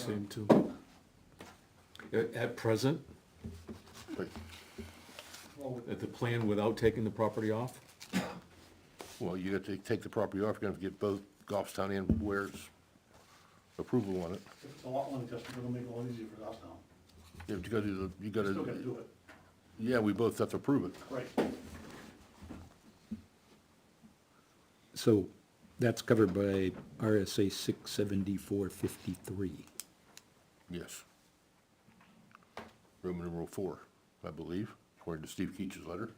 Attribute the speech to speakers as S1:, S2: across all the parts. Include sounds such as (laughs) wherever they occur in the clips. S1: Same too. At- At present,
S2: But
S1: at the plan without taking the property off,
S2: Well, you got to take the property off, you're gonna have to get both Goffstown and Ware's approval on it.
S3: It's a lot one adjustment, it'll make it a lot easier for us now.
S2: You have to go do the, you gotta,
S3: Still gotta do it,
S2: yeah, we both have to approve it.
S3: right.
S4: So that's covered by RSA six seventy-four fifty-three.
S2: Yes. Roman numeral four, I believe, according to Steve Keach's letter.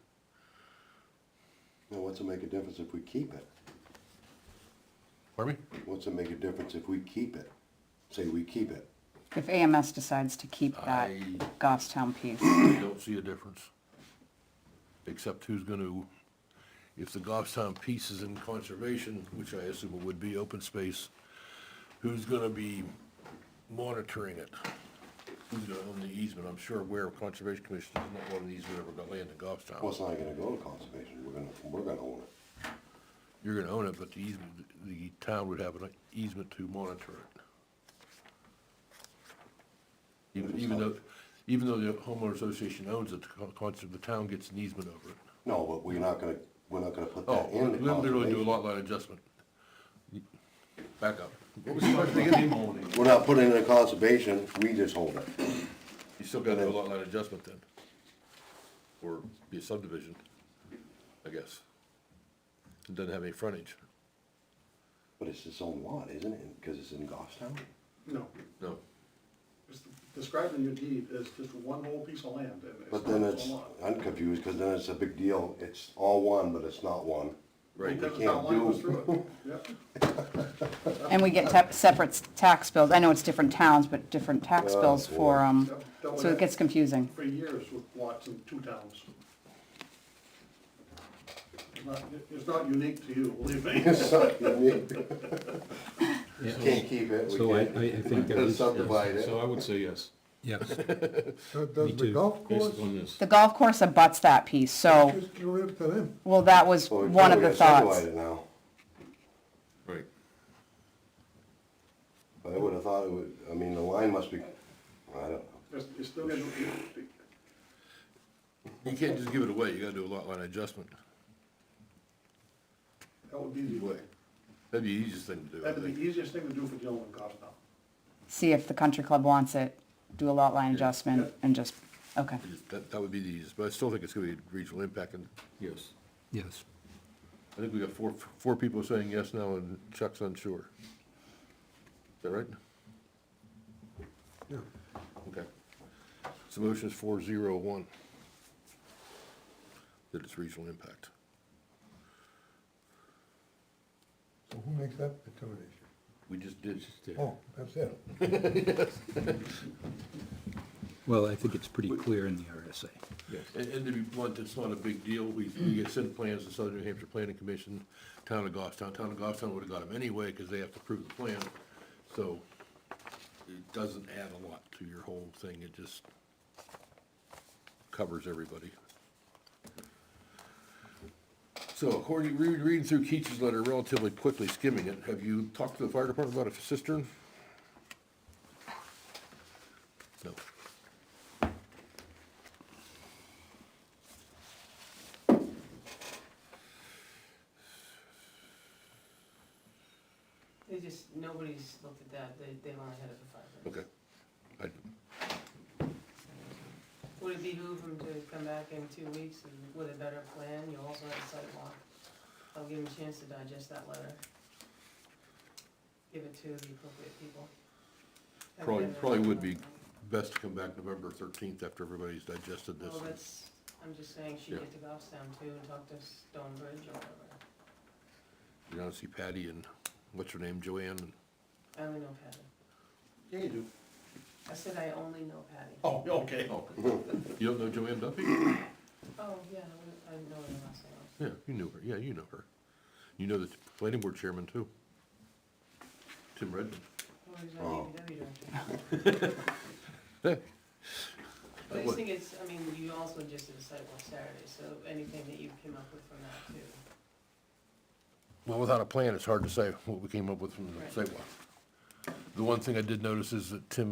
S5: Now, what's it make a difference if we keep it?
S2: Pardon me?
S5: What's it make a difference if we keep it? Say we keep it.
S6: If AMS decides to keep that
S2: I-
S6: Goffstown piece,
S2: I don't see a difference. Except who's gonna, if the Goffstown piece is in conservation, which I assume it would be open space, who's gonna be monitoring it? Who's gonna own the easement? I'm sure where Conservation Commission is not one of these who ever got land in
S5: Well,
S2: Goffstown.
S5: it's not gonna go to conservation, we're gonna, we're gonna own it.
S2: You're gonna own it, but the easement, the town would have an easement to monitor it. Even, even though, even though the homeowner association owns it, the con- cons- the town gets an easement over it.
S5: No, but we're not gonna, we're not gonna put
S2: Oh,
S5: that
S2: we'll
S5: in the
S2: literally do a
S5: conservation.
S2: lot line adjustment. Back up.
S5: We're not putting it in conservation, we just hold it.
S2: You still gotta do a lot line adjustment then. Or be a subdivision, I guess. It doesn't have any frontage,
S5: But it's its own lot, isn't it? Because it's in Goffstown?
S3: No,
S2: no.
S3: it's described in your deed as just one whole piece of land, and it's
S5: But
S3: not
S5: then
S3: its
S5: it's,
S3: own lot.
S5: I'm confused, because then it's a big deal, it's all one, but it's not one. (laughs)
S2: Right,
S3: Because
S5: can't
S3: that line goes
S5: do-
S3: through it, (laughs) yep.
S6: and we get tep- separate s- tax bills, I know it's different towns, but different tax
S5: Oh,
S6: bills for,
S5: boy.
S6: um,
S3: Yep, that
S6: so
S3: would-
S6: it gets confusing.
S3: For years with lots in two towns. It's not, it's not unique to you, believe
S5: (laughs)
S3: me.
S5: Can't keep it, we
S4: So I,
S5: can't
S4: I I think that is,
S5: (laughs) subdivide it.
S1: so I would say yes,
S4: yes, Me
S7: (laughs) Does the
S4: too.
S7: golf
S1: based
S7: course,
S1: upon this.
S6: The golf course abuts that piece, so,
S7: just get rid of Oh, them.
S6: well, that was
S5: So we
S6: one of
S5: gotta
S6: the thoughts.
S5: subdivide it now.
S1: Right.
S5: But I would have thought it would, I mean, the line must be, I don't know.
S3: It's, it's still gonna,
S2: you can't just give it away, you gotta do a lot line adjustment.
S3: that would be the,
S2: That'd be the easiest thing to do, I
S3: that'd be the
S2: think.
S3: easiest thing to do for Joe and Goffstown.
S6: See if the country club wants it, do a lot line adjustment and just, okay.
S2: That, that would be the easiest, but I still think it's gonna be regional impact, and
S1: Yes.
S4: yes.
S2: I think we got four, four people saying yes now, and Chuck's unsure. Is that right?
S7: Yeah.
S2: Okay. So motion is four zero one. That it's regional impact.
S7: So who makes that determination?
S2: We just did.
S7: Oh, that's it.
S4: Well, I think it's pretty clear in the RSA.
S2: And, and to be blunt, it's not a big deal. We, we get sent plans to Southern New Hampshire Planning Commission, Town of Goffstown. Town of Goffstown would've got them anyway, cause they have to approve the plan. So it doesn't add a lot to your whole thing. It just covers everybody. So according, re- reading through Keach's letter relatively quickly, skimming it, have you talked to the fire department about a cistern? No.
S8: They just, nobody's looked at that, they, they've only had it for five minutes.
S2: Okay. I,
S8: Would it behoove them to come back in two weeks and with a better plan, you also have a sidewalk? I'll give them a chance to digest that letter. Give it to the appropriate people. Have
S2: Probably-
S8: them-
S2: probably would be best to come back November thirteenth after everybody's digested this.
S3: Oh,
S8: Well, that's, I'm just saying, she
S2: Yeah.
S8: get to Goffstown too and talk to Stonebridge or whatever.
S2: You're gonna see Patty and, what's her name, Joanne, and
S8: I only know Patty.
S3: Yeah, you do.
S8: I said I only know Patty.
S3: Oh, okay.
S2: you don't know Joanne Duffy?
S8: Oh, yeah, I- I know her last name.
S2: Yeah, you knew her, yeah, you know her. You know the planning board chairman too. Tim Redmond.
S8: Well, he's
S5: Oh.
S8: our DPW director.
S2: Yeah,
S8: But I
S2: What?
S8: just think it's, I mean, you also just did a sidewalk Saturday, so anything that you came up with from that too.
S2: Well, without a plan, it's hard to say what we came up with from the
S8: Right.
S2: sidewalk. The one thing I did notice is that Tim